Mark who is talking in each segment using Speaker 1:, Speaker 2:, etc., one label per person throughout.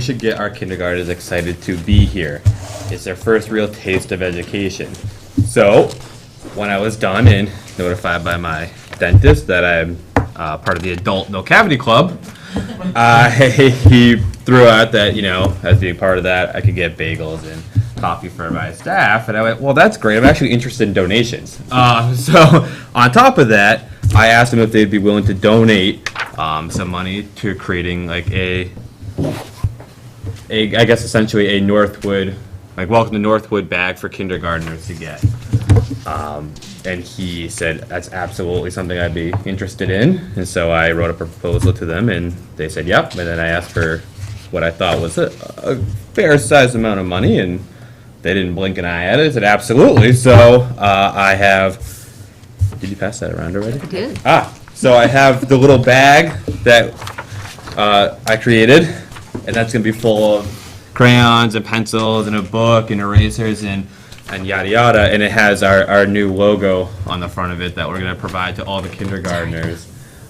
Speaker 1: We should get our kindergartners excited to be here. It's their first real taste of education. So, when I was done and notified by my dentist that I'm uh, part of the adult no cavity club, uh, he threw out that, you know, as being part of that, I could get bagels and coffee for my staff. And I went, well, that's great. I'm actually interested in donations. Uh, so, on top of that, I asked them if they'd be willing to donate um, some money to creating like a a, I guess essentially a Northwood, like welcome to Northwood bag for kindergartners to get. Um, and he said that's absolutely something I'd be interested in. And so I wrote up a proposal to them, and they said yep. And then I asked for what I thought was a, a fair sized amount of money, and they didn't blink an eye at it. They said absolutely. So uh, I have. Did you pass that around already?
Speaker 2: did.
Speaker 1: Ah, so I have the little bag that uh, I created, and that's gonna be full of crayons and pencils and a book and erasers and and yada yada. And it has our, our new logo on the front of it that we're gonna provide to all the kindergartners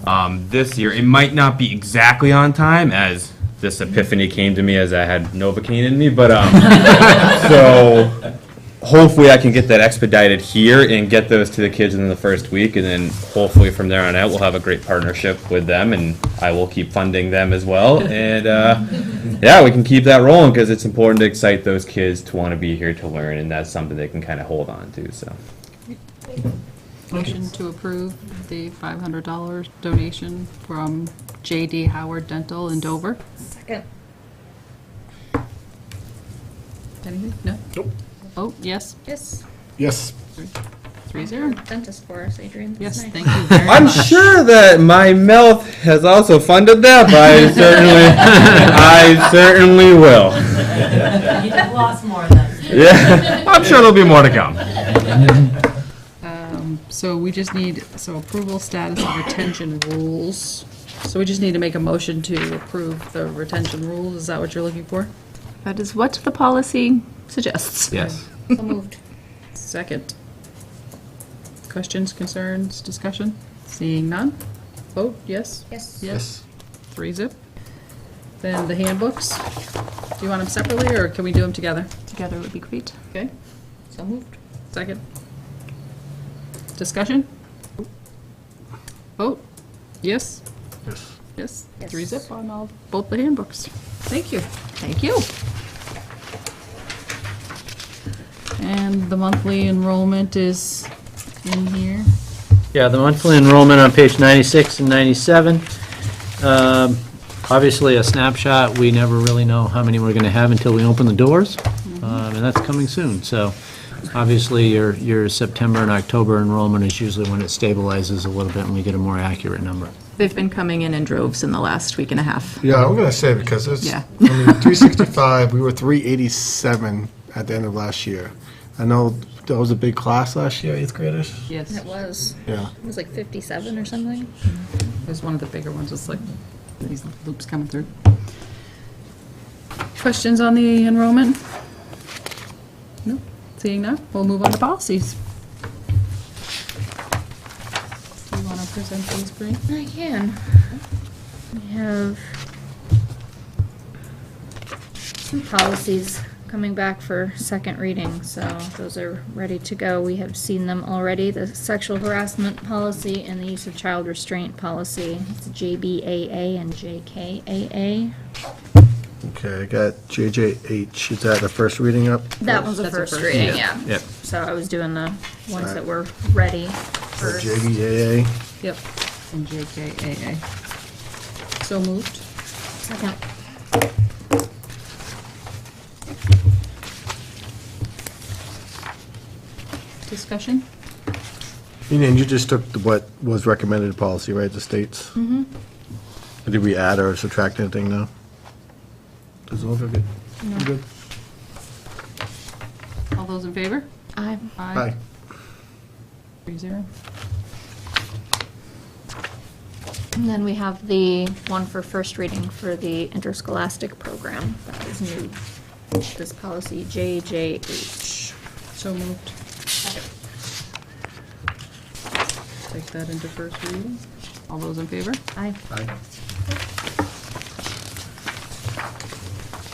Speaker 1: um, this year. It might not be exactly on time as this epiphany came to me as I had Novocaine in me, but um, so hopefully I can get that expedited here and get those to the kids in the first week, and then hopefully from there on out, we'll have a great partnership with them, and I will keep funding them as well, and, uh, yeah, we can keep that rolling, because it's important to excite those kids to want to be here to learn, and that's something they can kind of hold on to, so.
Speaker 2: Motion to approve the $500 donation from J.D. Howard Dental in Dover.
Speaker 3: Second.
Speaker 2: Anything? No? Nope. Oh, yes,
Speaker 3: Yes,
Speaker 4: Yes.
Speaker 2: three zero.
Speaker 3: dentist for us, Adrian. That's
Speaker 2: Yes,
Speaker 3: nice.
Speaker 2: thank you very
Speaker 1: I'm
Speaker 2: much.
Speaker 1: sure that my mouth has also funded that, but I certainly, I certainly will.
Speaker 5: You'd have lost more than.
Speaker 1: Yeah, I'm sure there'll be more to come.
Speaker 2: So we just need, so approval status of retention rules. So we just need to make a motion to approve the retention rules. Is that what you're looking for?
Speaker 6: That is what the policy suggests.
Speaker 1: Yes.
Speaker 3: So moved.
Speaker 2: Second. Questions, concerns, discussion? Seeing none? Vote, yes?
Speaker 3: Yes.
Speaker 2: Yes. Three zip. Then the handbooks. Do you want them separately, or can we do them together?
Speaker 6: Together would be great.
Speaker 2: Okay,
Speaker 3: So moved.
Speaker 2: second. Discussion? Vote? Yes? Yes. Yes, three zip on all, both the handbooks. Thank you.
Speaker 6: Thank you.
Speaker 2: And the monthly enrollment is in here.
Speaker 7: Yeah, the monthly enrollment on page 96 and 97. Um, Obviously, a snapshot, we never really know how many we're going to have until we open the doors, Um, and that's coming soon. So obviously, your, your September and October enrollment is usually when it stabilizes a little bit and we get a more accurate number.
Speaker 6: They've been coming in in droves in the last week and a half.
Speaker 4: Yeah, I'm gonna say because it's
Speaker 6: Yeah.
Speaker 4: I mean, 365. we were 387 at the end of last year. I know that was a big class last year, eighth graders.
Speaker 2: Yes,
Speaker 3: That
Speaker 2: it
Speaker 3: was,
Speaker 4: Yeah.
Speaker 3: it was like 57 or something.
Speaker 2: was one of the bigger ones, it's like, these loops coming through. Questions on the enrollment? No, seeing none, we'll move on to policies. Do you want to present these, Bree?
Speaker 3: I can. We have two policies coming back for second reading, so those are ready to go. We have seen them already, the sexual harassment policy and the use of child restraint policy. It's JBAA and JKAA.
Speaker 4: Okay, I got JJH. Is that the first reading up?
Speaker 3: That was the
Speaker 2: That's a
Speaker 3: first
Speaker 2: first
Speaker 3: reading, yeah.
Speaker 4: Yep.
Speaker 3: So I was doing the ones
Speaker 4: Alright.
Speaker 3: that were ready
Speaker 4: Or
Speaker 3: first.
Speaker 4: JBAA.
Speaker 2: Yep. And JKAA. So moved.
Speaker 3: Second.
Speaker 2: Discussion?
Speaker 4: You and you just took the- what was recommended policy, right? The states. Mm-hmm. Did we add or subtract anything now? Does it look good? Good.
Speaker 2: All those in favor?
Speaker 3: I,
Speaker 4: Aye.
Speaker 2: Three zero.
Speaker 3: and then we have the one for first reading for the interscholastic program. That is new. This policy JJH.
Speaker 2: So moved. Take that into first reading. All those in favor?
Speaker 3: I,
Speaker 4: Aye.